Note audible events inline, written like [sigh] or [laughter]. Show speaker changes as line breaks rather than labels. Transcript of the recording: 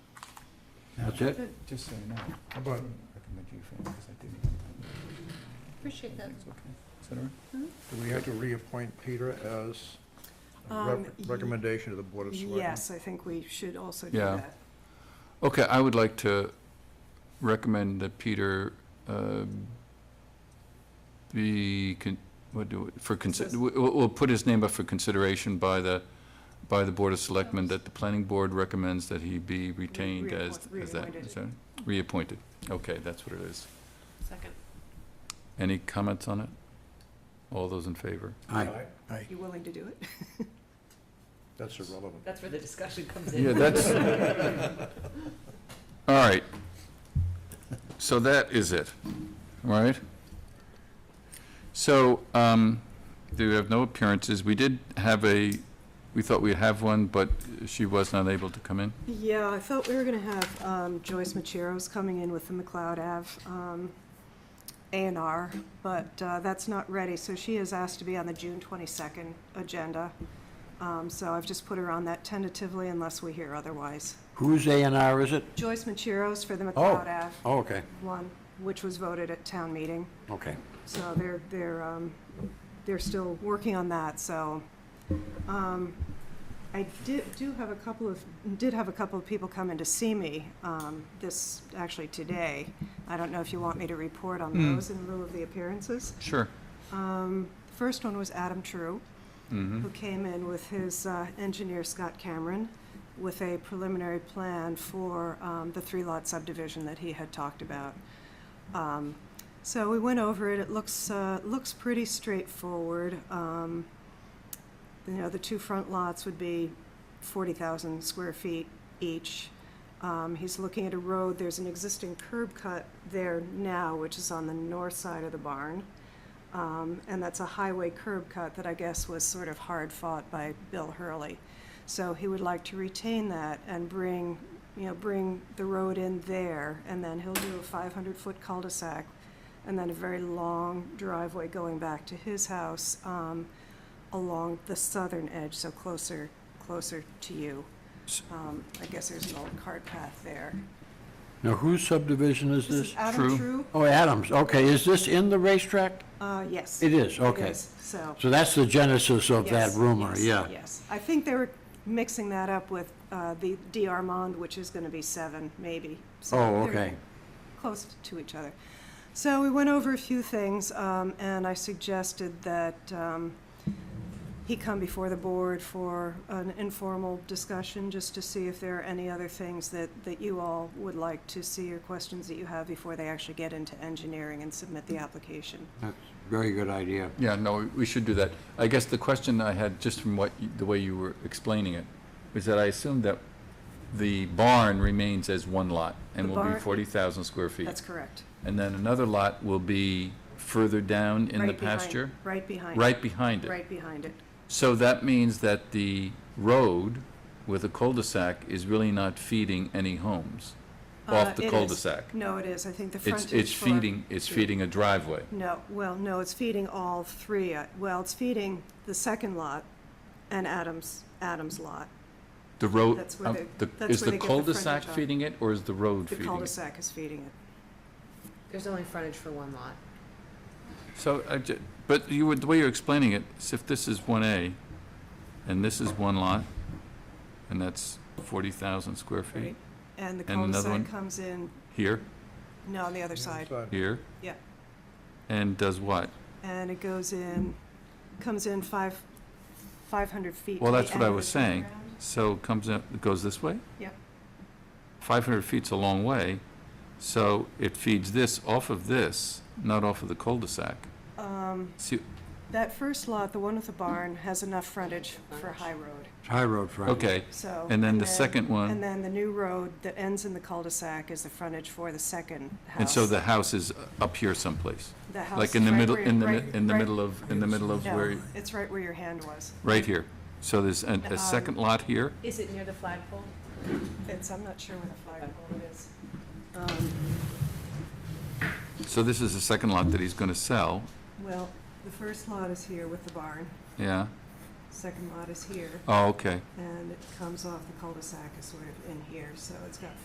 That's it?
Just so you know.
How about,
I recommend you for because I didn't.
Appreciate that.
It's okay. Is that all right?
do we have to reappoint Peter as a rep-
Um, y-
recommendation to the Board of Selectmen?
Yes, I think we should also do
Yeah.
that.
Okay, I would like to recommend that Peter um, be, con- what do, we- for, consi-
Says-
we- we'll, we'll put his name up for consideration by the, by the Board of Selectmen, that the planning board recommends that he be retained as,
reappoint-
as that.
reappointed.
is that- Reappointed. Okay, that's what it is.
Second.
Any comments on it? All those in favor?
Aye. Aye,
You willing to do it? [laughs]
that's irrelevant.
That's where the discussion comes
Yeah, that's. [laughs] All right. So that is it, right? So, um, do we have no appearances? We did have a, we thought we'd have one, but she was not able to come in.
Yeah, I felt we were gonna have um, Joyce Macheros coming in with the McLeod Ave um, A and R, but uh, that's not ready, so she is asked to be on the June twenty-second agenda. Um, So I've just put her on that tentatively unless we hear otherwise.
Whose A and R is it?
Joyce Macheros for the McLeod Ave
Oh, okay,
one, which was voted at town meeting.
okay.
So they're, they're, um, they're still working on that, so, um, I did, do have a couple of, did have a couple of people come in to see me, um, this, actually today. I don't know if you want me to report on
Hmm.
those in lieu of the appearances.
Sure.
Um, the first one was Adam True
Mm-hmm.
who came in with his uh, engineer, Scott Cameron, with a preliminary plan for um, the three-lot subdivision that he had talked about. Um, So we went over it, it looks, uh, looks pretty straightforward. Um, You know, the two front lots would be 40,000 square feet each. Um, He's looking at a road, there's an existing curb cut there now, which is on the north side of the barn. Um, and that's a highway curb cut that I guess was sort of hard fought by Bill Hurley. So he would like to retain that and bring, you know, bring the road in there, and then he'll do a five hundred foot cul-de-sac, and then a very long driveway going back to his house, um, along the southern edge, so closer, closer to you. Um, I guess there's an old cart path there.
Now, whose subdivision is this?
True.
Adam True?
Oh, Adams, okay, is this in the racetrack?
Uh, yes.
It is, okay.
is, So.
So that's the genesis of that
Yes,
rumor,
yes,
yeah.
Yes, I think they were mixing that up with uh, the D. Armand, which is going to be seven, maybe. So
Oh,
they're
okay.
Close to each other. So we went over a few things, um, and I suggested that um, he come before the board for an informal discussion, just to see if there are any other things that, that you all would like to see or questions that you have before they actually get into engineering and submit the application.
That's a very good idea.
Yeah, no, we- we should do that. I guess the question I had, just from what, you- the way you were explaining it, is that I assumed that the barn remains as one lot and
The
will be
barn-
40,000 square feet.
That's correct.
And then another lot will be further down in the
Right behind-
pasture?
Right behind. it.
Right behind it.
Right behind it.
So that means that the road with a cul-de-sac is really not feeding any homes
Uh,
off
it
the
is.
cul-de-sac.
No, it is. I think the
It's,
frontage.
it's
for-
feeding, it's feeding a driveway.
No, well, no, it's feeding all three. Uh, Well, it's feeding the second lot and Adams, Adams lot.
The road,
That's where
um,
they-
the-
that's
is
where
the
they get the
cul-de-sac
frontage on.
feeding it or is the road
The
feeding it?
cul-de-sac is feeding it.
There's only frontage for one lot.
So I ju- but you would, the way you're explaining it, is if this is one A and this is one lot and that's forty thousand square feet
Right. And the
And another one?
cul-de-sac comes in,
here,
no, on the other side.
here.
Yeah.
And does what?
And it goes in, comes in five, 500 feet. to
Well,
the
that's what I
end of
was
the
saying.
ground.
So it comes up, it goes this way?
Yep.
Five hundred feet's a long way, so it feeds this off of this, not off of the cul-de-sac.
Um,
See,
That first lot, the one with the barn, has enough frontage for High Road,
It's high road frontage.
okay,
so.
and then the second
And
one,
then the new road that ends in the cul-de-sac is the frontage for the second house.
and so the house is up here someplace,
The house
like
is
in the
right
middle,
where-
in the, mi-
right-
in the
right-
middle of, in the middle of
no,
where,
it's right where your hand was.
right here. So there's a, a
Um,
second lot here,
Is it near the flagpole?
It's, I'm not sure where the flagpole is. Um,
so this is the second lot that he's gonna sell,
Well, the first lot is here with the barn,
yeah?
second lot is here,
Oh, okay.
and it comes off the cul-de-sac is sort of in here, so it's got